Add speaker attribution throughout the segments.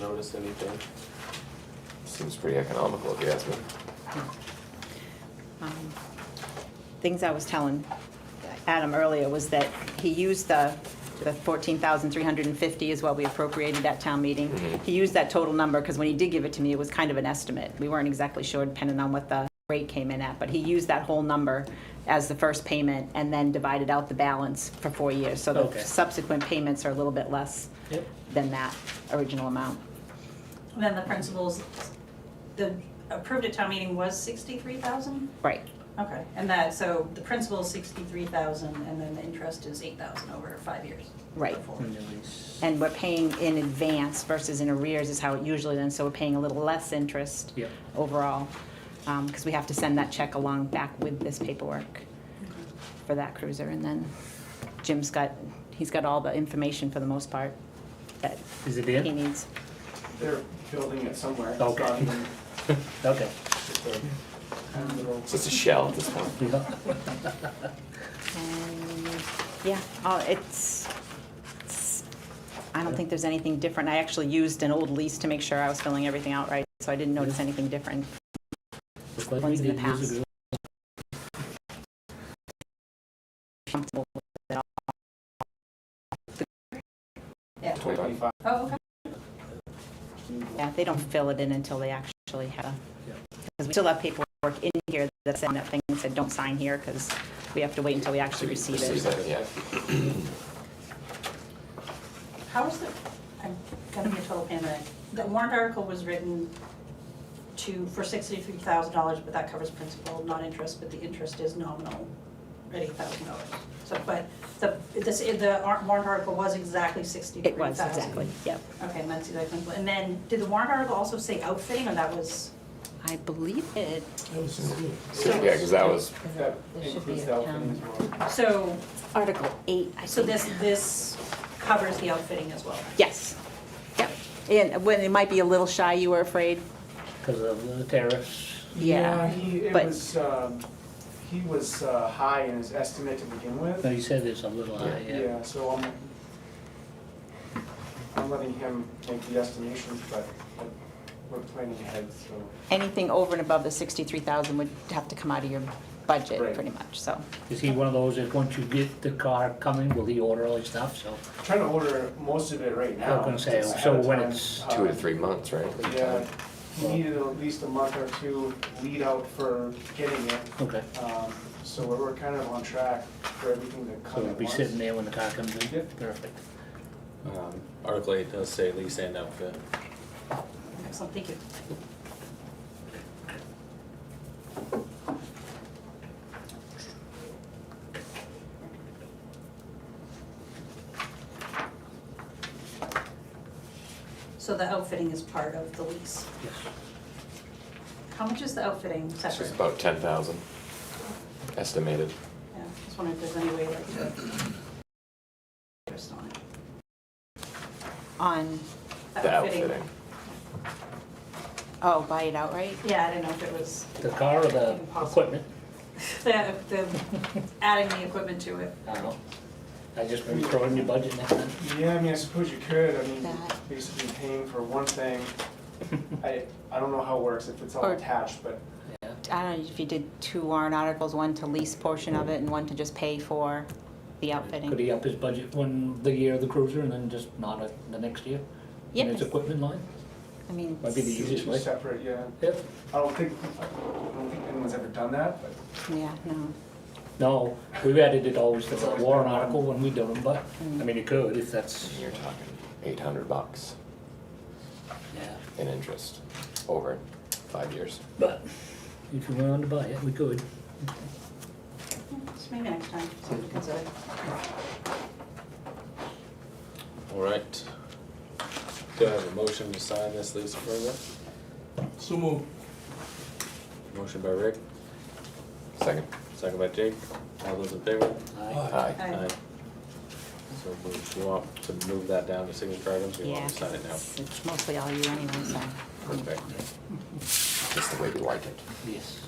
Speaker 1: noticed anything. Seems pretty economical if you ask me.
Speaker 2: Um, Things I was telling Adam earlier was that he used the, the 14,350 is what we appropriated at town meeting. He used that total number, because when he did give it to me, it was kind of an estimate. We weren't exactly sure depending on what the rate came in at, but he used that whole number as the first payment and then divided out the balance for four years. So
Speaker 3: Okay.
Speaker 2: the subsequent payments are a little bit less
Speaker 3: Yep.
Speaker 2: than that original amount.
Speaker 4: Then the principals, the approved at town meeting was sixty-three thousand?
Speaker 2: Right,
Speaker 4: Okay, and that, so the principal's sixty-three thousand, and then the interest is eight thousand over five years.
Speaker 2: Right.
Speaker 4: Before.
Speaker 3: Anyways,
Speaker 2: and we're paying in advance versus in arrears is how it usually is, so we're paying a little less interest
Speaker 3: Yep.
Speaker 2: overall, because we have to send that check along back with this paperwork for that cruiser, and then Jim's got, he's got all the information for the most part that
Speaker 3: Is it
Speaker 2: he
Speaker 3: in?
Speaker 2: needs.
Speaker 5: They're building it somewhere. It's
Speaker 3: Okay.
Speaker 5: not even-
Speaker 3: Okay.
Speaker 5: just a kind of little-
Speaker 1: It's just a shell at this point.
Speaker 3: Yeah.
Speaker 2: And, yeah, oh, it's, it's- I don't think there's anything different. I actually used an old lease to make sure I was filling everything out right, so I didn't notice anything different.
Speaker 3: Looks like we
Speaker 2: Ones in the
Speaker 3: did years
Speaker 2: past.
Speaker 3: ago.
Speaker 2: Comfortable with it all.
Speaker 4: Yeah,
Speaker 1: Twenty-five.
Speaker 4: oh, okay,
Speaker 2: Yeah, they don't fill it in until they actually have,
Speaker 3: Yeah.
Speaker 2: because we still have paperwork in here that's on that thing that said, don't sign here, because we have to wait until we actually receive
Speaker 1: Receive
Speaker 2: it.
Speaker 1: it, yeah.
Speaker 4: how is the, I'm gonna be a total pain in the neck. The warrant article was written to, for sixty-three thousand dollars, but that covers principal, not interest, but the interest is nominal at eight thousand dollars. So, but the, this, the ar- warrant article was exactly sixty-three
Speaker 2: It
Speaker 4: thousand.
Speaker 2: was, exactly, yep.
Speaker 4: Okay, and that's exactly, and then, did the warrant article also say outfitting, or that was,
Speaker 2: I believe it,
Speaker 1: Yeah, because that was,
Speaker 5: If that includes the outfitting as well.
Speaker 4: so,
Speaker 2: Article 8, I
Speaker 4: so this,
Speaker 2: think.
Speaker 4: this covers the outfitting as well?
Speaker 2: Yes, yep. And when it might be a little shy, you were afraid?
Speaker 3: Because of the tariffs.
Speaker 2: Yeah,
Speaker 5: He, it
Speaker 2: but-
Speaker 5: was, um, he was uh, high in his estimate to begin
Speaker 3: No,
Speaker 5: with.
Speaker 3: you said it's a little high, yeah.
Speaker 5: Yeah, so I'm, I'm letting him make the estimations, but but we're planning ahead, so.
Speaker 2: Anything over and above the 63,000 would have to come out of your budget,
Speaker 5: Right.
Speaker 2: pretty much, so.
Speaker 3: Is he one of those that once you get the car coming, will he order all his stuff, so?
Speaker 5: Trying to order most of it right
Speaker 3: I was
Speaker 5: now.
Speaker 3: gonna say,
Speaker 5: just
Speaker 3: so
Speaker 5: ahead of
Speaker 3: when
Speaker 5: time.
Speaker 3: it's
Speaker 1: two
Speaker 5: Uh,
Speaker 1: to three months, right?
Speaker 5: Yeah, he needed at least a month or two lead out for getting it.
Speaker 3: Okay.
Speaker 5: Um, So we're we're kind of on track for everything to
Speaker 3: So
Speaker 5: come
Speaker 3: he'll
Speaker 5: at
Speaker 3: be
Speaker 5: once.
Speaker 3: sitting there when the car comes in?
Speaker 5: Yep.
Speaker 3: Perfect.
Speaker 6: Um, Article eight does say lease and outfit.
Speaker 4: Excellent, thank you. So the outfitting is part of the lease.
Speaker 3: Yes.
Speaker 4: How much is the outfitting
Speaker 1: It's
Speaker 4: separate?
Speaker 1: just about ten thousand estimated.
Speaker 4: Yeah, just wondering if there's any way like to. Just on it.
Speaker 2: On,
Speaker 1: The outfitting.
Speaker 2: oh, buy it outright?
Speaker 4: Yeah, I didn't know if it was,
Speaker 3: The car or the equipment?
Speaker 4: the, the, adding the equipment to it.
Speaker 3: I don't know. I just maybe throw in your budget next time.
Speaker 5: Yeah, I mean, I suppose you could, I mean,
Speaker 2: That.
Speaker 5: basically paying for one thing. I, I don't know how it works, if it's all
Speaker 2: Or-
Speaker 5: attached, but
Speaker 2: I don't know if you did two warrant articles, one to lease portion of it and one to just pay for the
Speaker 3: Could
Speaker 2: outfitting.
Speaker 3: he up his budget one, the year of the cruiser and then just not it the next year? In
Speaker 2: Yes,
Speaker 3: its equipment line?
Speaker 2: I mean,
Speaker 3: Might be the
Speaker 5: two
Speaker 3: easiest
Speaker 5: two
Speaker 3: way.
Speaker 5: separate, yeah.
Speaker 3: Yep.
Speaker 5: I don't think, I don't think anyone's ever done that, but
Speaker 2: yeah, no.
Speaker 3: No, we've added it always to
Speaker 5: It's
Speaker 3: the
Speaker 5: always
Speaker 3: warrant
Speaker 5: been one.
Speaker 3: article when we do them, but, I mean, it could if that's,
Speaker 1: You're talking eight hundred bucks
Speaker 3: yeah.
Speaker 1: in interest over five years.
Speaker 3: But if you wanted to buy it, we could.
Speaker 4: So maybe next time, something to consider.
Speaker 6: All right. Do I have a motion to sign this lease agreement?
Speaker 7: So moved.
Speaker 6: Motion by Rick,
Speaker 1: Second.
Speaker 6: second by Jake. All those in favor?
Speaker 3: Aye.
Speaker 1: Aye.
Speaker 4: Aye.
Speaker 6: So move- you want to move that down to signature items, or you
Speaker 2: Yeah,
Speaker 6: want to sign it now?
Speaker 2: it's it's mostly all you anyway, so.
Speaker 6: Perfect.
Speaker 1: Just the way we like it.
Speaker 3: Yes.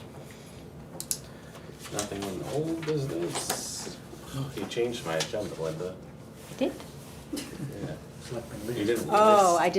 Speaker 6: Nothing on the old business. Oh, You changed my agenda, Linda.
Speaker 2: Did?
Speaker 6: Yeah.
Speaker 3: Selectmen
Speaker 6: You
Speaker 3: Lee.
Speaker 6: didn't.
Speaker 2: Oh, I did